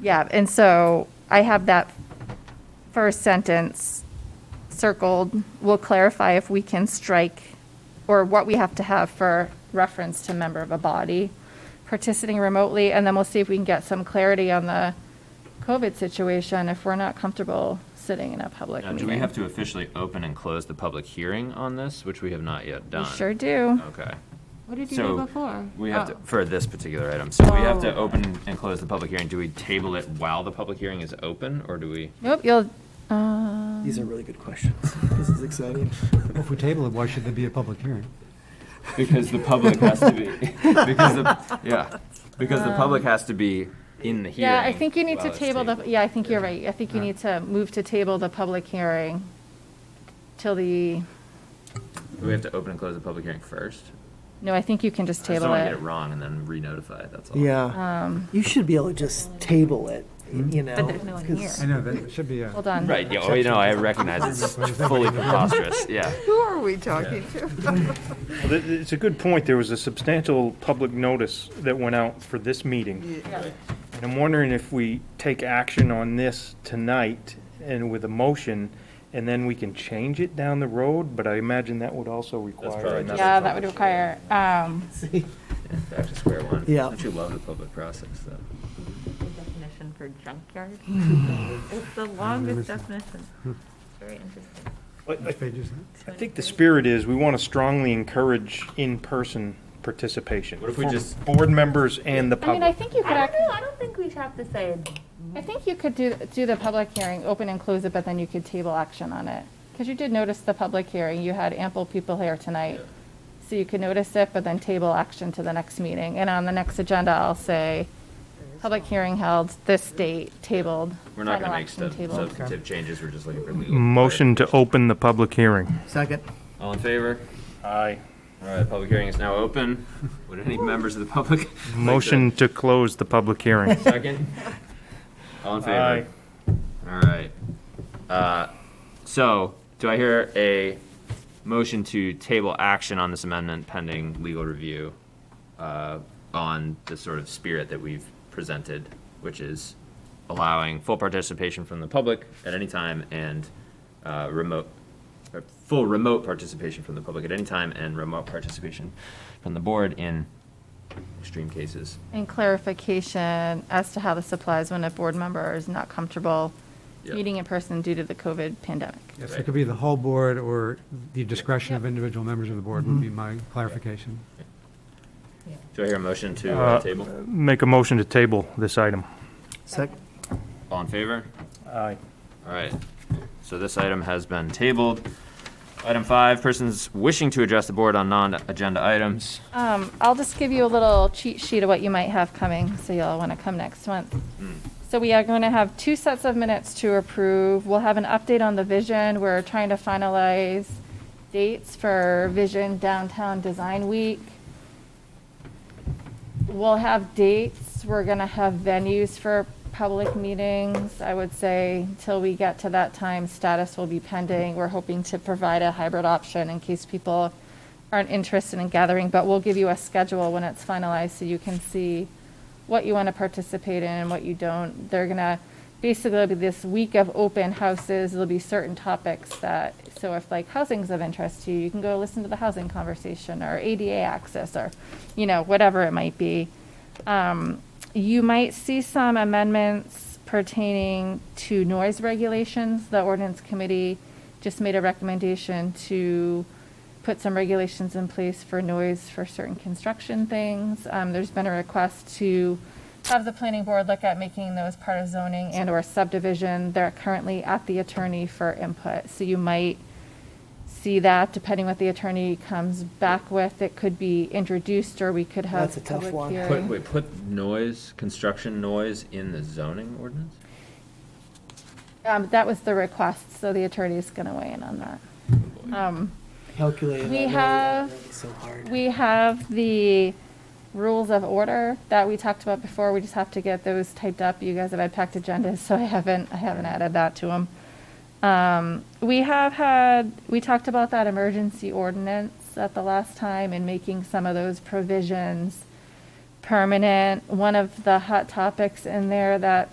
Yeah, and so I have that first sentence circled. We'll clarify if we can strike, or what we have to have for reference to member of a body participating remotely, and then we'll see if we can get some clarity on the COVID situation if we're not comfortable sitting in a public Now, meeting. do we have to officially open and close the public hearing on this, which we have not yet We done? sure do. Okay. What did you do So before? we have to, Oh. for this particular item, so we have to Oh. open and close the public hearing. Do we table it while the public hearing is open, or do we? Nope, you'll, uh, These are really good questions. This is exciting. Well, If we table it, why should there be a public hearing? Because the public has to be, because the, yeah, because Uh, the public has to be in the hearing. yeah, I think you need while to it's table the, tabled. yeah, I think you're right. I think you need to move to table the public hearing till the Do we have to open and close the public hearing first? No, I think you can I just just don't table want to it. Um, get it wrong and then re-notify it, that's all. Yeah. You should be able to just table it, you know? there's no one 'cause- here. Hmm? I know, that it should be a. Hold on. Right, yeah, oh, you know, I recognize it's fully preposterous, yeah. Who are we talking to? Well, th- th- It's a good point. There was a substantial public notice that went out for this meeting. And I'm wondering if we take action on this tonight and with a motion, and then we can change it down the road, but I imagine that would also require probably another. Yeah, that would require, um, Back to square one. Yeah. Don't you love the public process, though? Definition for junkyard? It's Uh, the longest definition. Very interesting. But I- Which page is that? I think the spirit is, we want to strongly encourage in-person participation. What if we for just- Board members and the I mean, I public. think you could, I act- don't know, I don't think we have to say, I think you could do, do the public hearing, open and close it, but then you could table action on it. Because you did notice the public hearing, you had ample people here tonight. So you could notice it, but then table action to the next meeting. And on the next agenda, I'll say, public hearing held, this date, tabled. We're not final gonna make action sub- tabled. substantive changes, we're just looking for legal. Motion to open the public hearing. Second. All in favor? Aye. All right, public hearing is now open. Would any members of the public? like to- Motion to close the public hearing. Second? All in favor? All right. Uh, So, do I hear a motion to table action on this amendment pending legal review uh, on the sort of spirit that we've presented, which is allowing full participation from the public at any time and uh, remote, or full remote participation from the public at any time and remote participation from the board in extreme cases? And clarification as to how this applies when a board member is not comfortable Yeah. meeting in person due to the COVID pandemic. Yes, it could be the whole board or the discretion of individual members of the board would be my clarification. Do I hear a motion to uh, Uh, table? Make a motion to table this item. Second. All in favor? Aye. All right, so this item has been tabled. Item five, persons wishing to address the board on non-agenda items. Um, I'll just give you a little cheat sheet of what you might have coming, so you'll want to come next month. So we are going to have two sets of minutes to approve. We'll have an update on the vision. We're trying to finalize dates for Vision Downtown Design Week. We'll have dates. We're going to have venues for public meetings. I would say until we get to that time, status will be pending. We're hoping to provide a hybrid option in case people aren't interested in gathering, but we'll give you a schedule when it's finalized so you can see what you want to participate in and what you don't. They're gonna, basically, it'll be this week of open houses, there'll be certain topics that, so if like housing's of interest to you, you can go listen to the housing conversation or ADA access or, you know, whatever it might be. Um, You might see some amendments pertaining to noise regulations. The ordinance committee just made a recommendation to put some regulations in place for noise for certain construction things. Um, there's been a request to have the planning board look at making those part of zoning and or subdivision. They're currently at the attorney for input, so you might see that depending what the attorney comes back with. It could be introduced or we could have That's a tough public one. hearing. Put, wait, put noise, construction noise in the zoning ordinance? Um, that was the request, so the attorney's gonna weigh in on that. Um, Calculated. We I know that have- really So hard. We have the rules of order that we talked about before. We just have to get those typed up. You guys have had packed agendas, so I haven't, I haven't added that to them. Um, we have had, we talked about that emergency ordinance at the last time and making some of those provisions permanent. One of the hot topics in there that